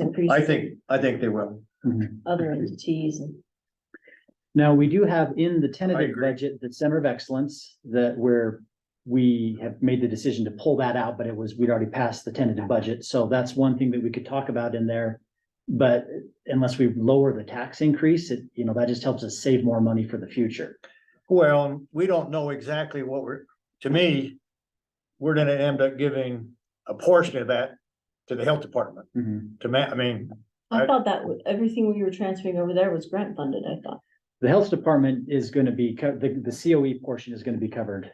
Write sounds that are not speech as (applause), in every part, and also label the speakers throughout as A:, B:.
A: increase
B: I think, I think they will.
A: other entities and.
C: Now, we do have in the tentative
B: agree.
C: budget, the Center of Excellence, that where we have made the decision to pull that out, but it was, we'd already passed the tentative budget, so that's one thing that we could talk about in there. But unless we lower the tax increase, it, you know, that just helps us save more money for the future.
B: Well, we don't know exactly what we're, to me, we're gonna end up giving a portion of that to the health department, to ma, I mean,
A: I
B: I-
A: thought that wa- everything we were transferring over there was grant funded, I thought.
C: The health department is gonna be, co- the, the COE portion is gonna be covered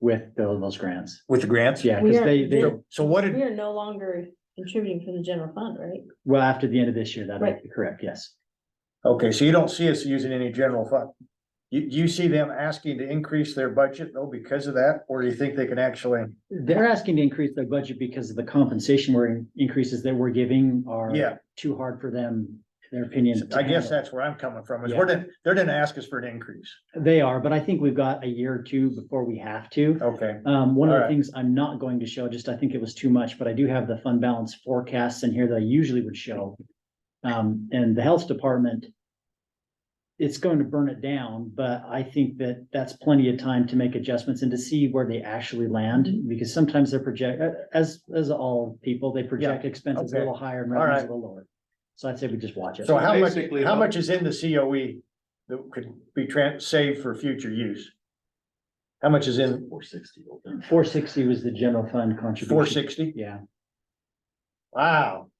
C: with tho- those grants.
B: with the grants.
C: Yeah,
A: We
C: because
A: are-
C: they, they,
B: So- So what
A: We
B: did,
A: are no longer contributing from the general fund, right?
C: well, after the end of this year, that'll
A: Right.
C: be correct, yes.
B: okay, so you don't see us using any general fund? You, you see them asking to increase their budget though because of that, or do you think they can actually?
C: They're asking to increase their budget because of the compensation we're increases that we're giving are
B: Yeah.
C: too hard for them, in their opinion. to
B: I guess
C: handle.
B: that's where I'm coming from, is we're gonna, they're gonna ask us for an increase,
C: They are, but I think we've got a year or two before we have to.
B: okay?
C: Um, one of the
B: Alright.
C: things I'm not going to show, just I think it was too much, but I do have the fund balance forecasts in here that I usually would show. Um, and the health department. It's going to burn it down, but I think that that's plenty of time to make adjustments and to see where they actually
B: Mm-hmm.
C: land. Because sometimes they're project, uh, as, as all people, they project expenses a
B: okay.
C: little higher and
B: Alright.
C: revenues a little lower. So I'd say we just watch it.
B: So how much,
D: Basically,
B: how
D: what-
B: much is in the COE that could be tran, saved for future use? How much is in
D: Four sixty.
C: Four sixty was the general fund contribution.
B: four sixty?
C: Yeah,
B: Wow.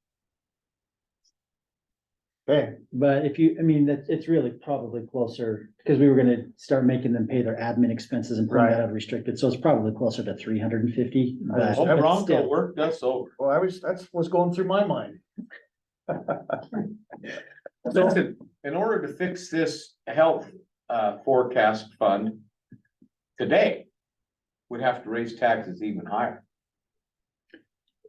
B: Okay,
C: but if you, I mean, that, it's really probably closer, because we were gonna start making them pay their admin expenses and pulling that
B: Right.
C: out of restricted, so it's probably closer to three hundred and fifty.
B: Right.
D: Oh, Bronco worked us over.
B: well, I was, that's what's going through my mind.
D: Listen, in order to fix this health uh forecast fund. Today. We'd have to raise taxes even higher.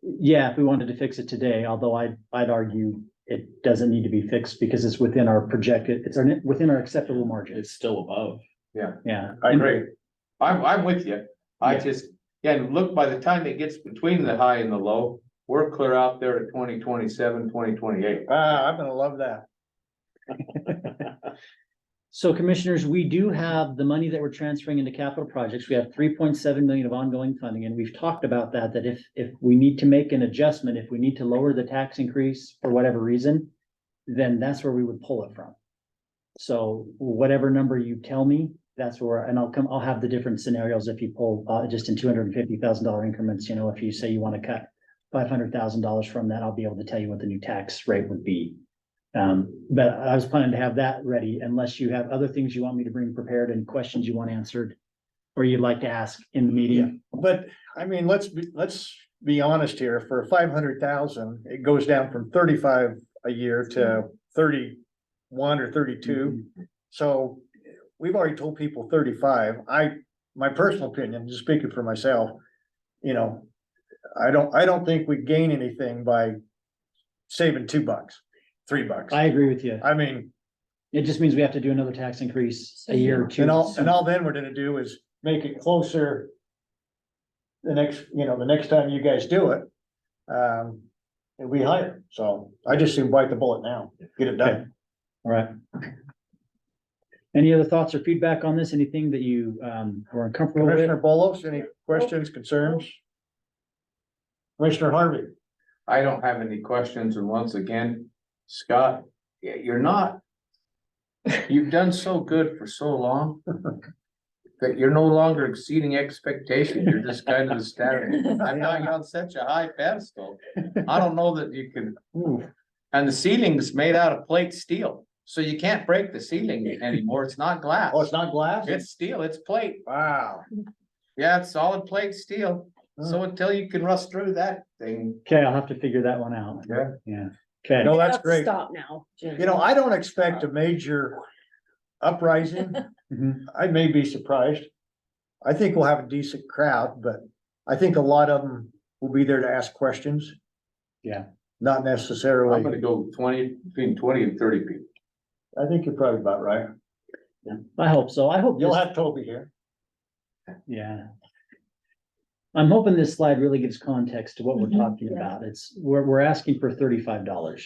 C: Yeah, if we wanted to fix it today, although I, I'd argue it doesn't need to be fixed because it's within our projected, it's our, within our acceptable margins,
E: It's still above.
C: yeah.
B: I agree.
D: I'm I'm with you. I
C: Yeah.
D: just, and look, by the time it gets between the high and the low, we're clear out there to 2027, 2028.
B: Ah, I'm gonna love that.
C: So commissioners, we do have the money that we're transferring into capital projects. We have three point seven million of ongoing funding, and we've talked about that, that if, if we need to make an adjustment, if we need to lower the tax increase for whatever reason, then that's where we would pull it from. So whatever number you tell me, that's where, and I'll come, I'll have the different scenarios if you pull, uh, just in two hundred and fifty thousand dollar increments, you know, if you say you want to cut five hundred thousand dollars from that, I'll be able to tell you what the new tax rate would be. Um, but I was planning to have that ready unless you have other things you want me to bring prepared and questions you want answered. Or you'd like to ask in the meeting.
B: But, I mean, let's be, let's be honest here, for five hundred thousand, it goes down from thirty-five a year to thirty-one or thirty-two. So we've already told people thirty-five. I, my personal opinion, just speaking for myself, you know, I don't, I don't think we gain anything by saving two bucks, three bucks.
C: I agree with you.
B: I mean,
C: It just means we have to do another tax increase a year or two.
B: and all, and all then we're gonna do is make it closer the next, you know, the next time you guys do it, um, it'll be higher. So I just seem bite the bullet now, get it done.
C: All right. Any other thoughts or feedback on this? Anything that you, um, were uncomfortable with?
B: Commissioner Bolos, any questions, concerns? Commissioner Harvey?
D: I don't have any questions, and once again, Scott, y- you're not. You've done so good for so long. (laughs) That you're no longer exceeding expectation, you're just kind of
A: (laughs)
D: staring, I'm not on such a high pedestal, I don't know that you can. And the ceiling's made out of plate steel, so you can't break the ceiling anymore, it's not glass,
B: Oh, it's not glass?
D: it's steel, it's plate,
B: Wow.
D: yeah, it's solid plate steel.
B: Hmm.
D: So until you can rust through that thing,
C: Okay, I'll have to figure that one out.
D: Yeah.
C: Yeah. Okay.
B: No, that's great.
A: Stop now. Jim.
B: You know, I don't expect a major uprising.
C: Mhm.
B: I may be surprised. I think we'll have a decent crowd, but I think a lot of them will be there to ask questions.
C: Yeah.
B: Not
D: I'm gonna
B: necessarily.
D: go twenty, between twenty and thirty people.
B: I think you're probably about right.
C: I hope so. I hope.
B: You'll
C: this-
B: have Toby here.
C: Yeah. I'm hoping this slide really gives context to what we're
A: Mhm.
C: talking about. It's, we're, we're asking for thirty-five dollars.